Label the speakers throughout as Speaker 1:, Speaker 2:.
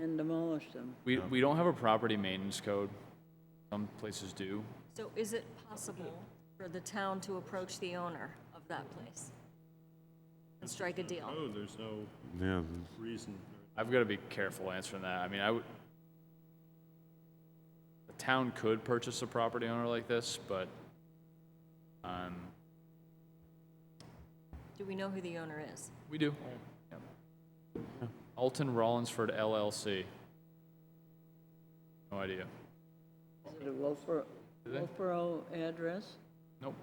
Speaker 1: and demolish them.
Speaker 2: We, we don't have a property maintenance code. Some places do.
Speaker 3: So is it possible for the town to approach the owner of that place and strike a deal?
Speaker 4: No, there's no
Speaker 5: Yeah,
Speaker 4: reason.
Speaker 2: I've got to be careful answering that. I mean, I would. The town could purchase a property owner like this, but, um,
Speaker 3: Do we know who the owner is?
Speaker 2: we do. Yep. Alton Rollinsford LLC. No idea.
Speaker 1: Is it a Wolfboro, Wolfboro address?
Speaker 2: Nope.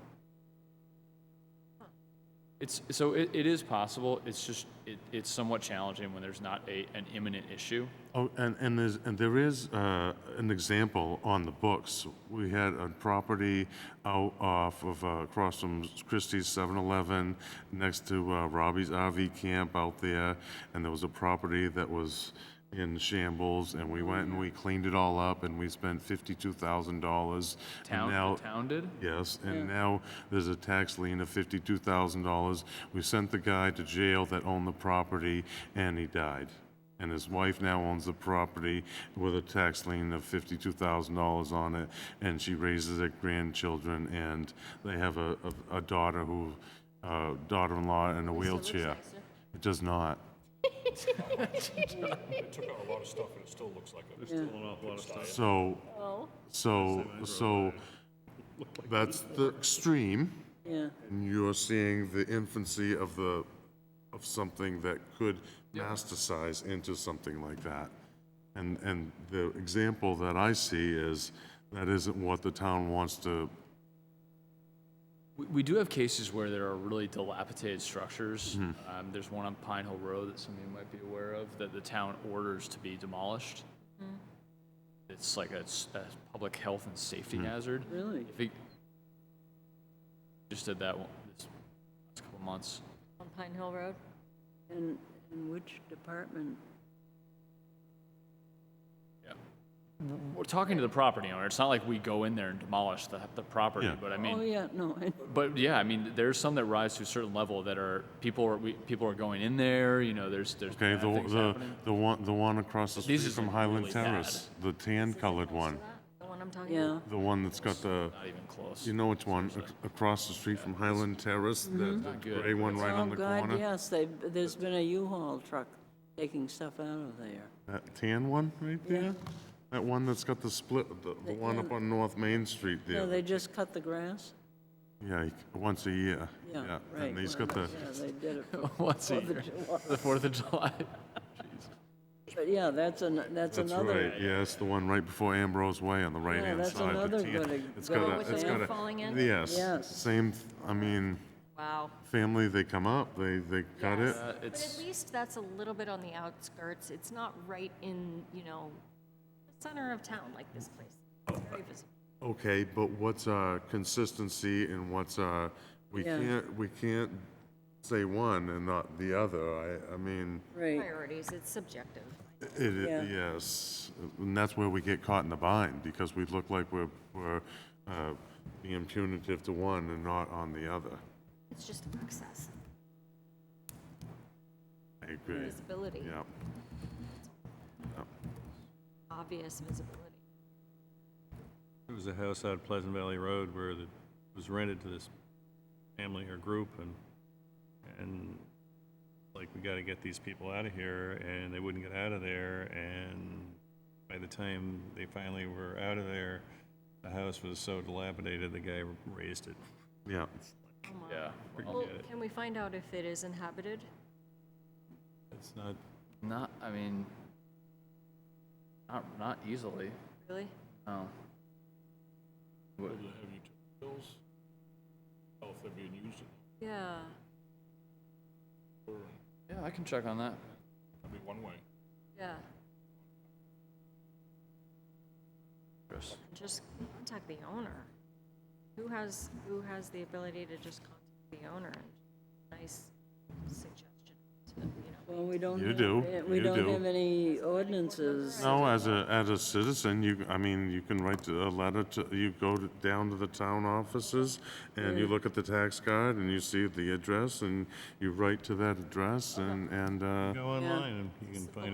Speaker 2: It's, so it, it is possible, it's just, it, it's somewhat challenging when there's not a, an imminent issue.
Speaker 5: oh, and, and there's, and there is, uh, an example on the books. We had a property out off of, uh, across from Christie's 7-Eleven, next to, uh, Robbie's RV camp out there, and there was a property that was in shambles, and
Speaker 2: Oh,
Speaker 5: we went and we cleaned it all up, and we spent fifty-two thousand dollars.
Speaker 2: Town, the town did?
Speaker 5: Yes, and now there's a tax lien of fifty-two thousand dollars. We sent the guy to jail that owned the property, and he died. And his wife now owns the property with a tax lien of fifty-two thousand dollars on it, and she raises their grandchildren, and they have a, a a daughter who, uh, daughter-in-law in a wheelchair.
Speaker 3: nicer.
Speaker 5: It does not.
Speaker 6: took out a lot of stuff and it still looks like it.
Speaker 4: Still an awful lot of stuff.
Speaker 5: So, so, so, that's the extreme.
Speaker 1: Yeah,
Speaker 5: And you're seeing the infancy of the, of something that could masticize into something like that. And, and the example that I see is, that isn't what the town wants to,
Speaker 2: We, we do have cases where there are really dilapidated structures. Um, there's one on Pine Hill Road that some of you might be aware of that the town orders to be demolished.
Speaker 1: Mm-hmm.
Speaker 2: It's like a, s- a public health and safety hazard.
Speaker 1: really?
Speaker 2: If it, just did that one this last couple months.
Speaker 3: On Pine Hill Road?
Speaker 1: And, and which department?
Speaker 2: Yeah. We're talking to the property owner. It's not like we go in there and demolish the, the property,
Speaker 5: Yeah.
Speaker 2: but I mean,
Speaker 1: Oh, yeah, no, I-
Speaker 2: But yeah, I mean, there's some that rise to a certain level that are people are we, people are going in there. You know, there's there's
Speaker 5: okay,
Speaker 2: bad
Speaker 5: the,
Speaker 2: things
Speaker 5: the,
Speaker 2: happening.
Speaker 5: the one, the one across the street
Speaker 2: These are
Speaker 5: from
Speaker 2: some
Speaker 5: Highland
Speaker 2: really bad.
Speaker 5: Terrace, the tan-colored one,
Speaker 3: The one I'm talking
Speaker 1: yeah,
Speaker 3: about?
Speaker 5: the one that's got the,
Speaker 2: not even close.
Speaker 5: you know which one, ac- across the street from Highland Terrace, the the
Speaker 2: good.
Speaker 5: gray one right
Speaker 1: oh,
Speaker 5: on the corner?
Speaker 1: God, yes, they, there's been a U-Haul truck taking stuff out of there.
Speaker 5: That tan one right there? That one that's got the split, the, the one up on North Main Street
Speaker 1: No,
Speaker 5: there?
Speaker 1: they just cut the grass?
Speaker 5: Yeah, he- once a year.
Speaker 1: Yeah, right.
Speaker 5: And he's
Speaker 1: well,
Speaker 5: got the,
Speaker 1: Yeah, they did it for
Speaker 2: Once a
Speaker 1: Fourth
Speaker 2: year,
Speaker 1: of July.
Speaker 2: the Fourth of July.
Speaker 1: But yeah, that's an, that's
Speaker 5: that's
Speaker 1: another,
Speaker 5: right, yeah, it's the one right before Ambrose Way on the right-hand
Speaker 1: that's
Speaker 5: side. the
Speaker 1: another
Speaker 5: tan-
Speaker 1: good
Speaker 5: It's got
Speaker 1: example.
Speaker 3: Oh,
Speaker 5: a,
Speaker 1: With
Speaker 5: it's
Speaker 1: the
Speaker 5: got
Speaker 3: roof
Speaker 5: a.
Speaker 3: falling in?
Speaker 1: Yes.
Speaker 5: Yes, same, th- I mean,
Speaker 3: Wow.
Speaker 5: family, they come up, they, they cut it.
Speaker 2: Uh,
Speaker 3: But at
Speaker 2: it's
Speaker 3: least that's a little bit on the outskirts. It's not right in, you know, the center of town like this place. It's very visible.
Speaker 5: Okay, but what's our consistency and what's our, we
Speaker 1: Yeah.
Speaker 5: can't, we can't say one and not the other, I, I mean.
Speaker 1: right,
Speaker 3: Priorities, it's subjective.
Speaker 5: It,
Speaker 1: Yeah.
Speaker 5: i yes, and that's where we get caught in the bind, because we look like we're, we're uh, being punitive to one and not on the other.
Speaker 3: It's just access,
Speaker 5: I agree,
Speaker 3: visibility,
Speaker 5: yeah.
Speaker 3: obvious visibility.
Speaker 4: There was a house out Pleasant Valley Road where it was rented to this family or group and, and like, we gotta get these people out of here, and they wouldn't get out of there, and by the time they finally were out of there, the house was so dilapidated, the guy raised it.
Speaker 5: Yeah,
Speaker 3: Oh my.
Speaker 2: yeah.
Speaker 3: Well,
Speaker 4: Forget it.
Speaker 3: can we find out if it is inhabited?
Speaker 4: It's not,
Speaker 2: Not. I mean, not not easily.
Speaker 3: Really?
Speaker 2: No. What-
Speaker 6: Have you took bills? How if they're being used,
Speaker 3: Yeah.
Speaker 2: Yeah, I can check on that.
Speaker 6: that'd be one way.
Speaker 3: Yeah.
Speaker 2: Chris.
Speaker 3: Just contact the owner. Who has who has the ability to just contact the owner? Nice suggestion. To, you know.
Speaker 1: well, we don't.
Speaker 5: You
Speaker 1: have-
Speaker 5: do,
Speaker 1: eh, We
Speaker 5: you
Speaker 1: don't
Speaker 5: do.
Speaker 1: have any ordinances.
Speaker 5: no, as a, as a citizen, you, I mean, you can write a letter to, you go to- down to the town offices, and you look at the tax card, and you see the address, and you write to that address, and, and, uh,
Speaker 4: go online and you can find it.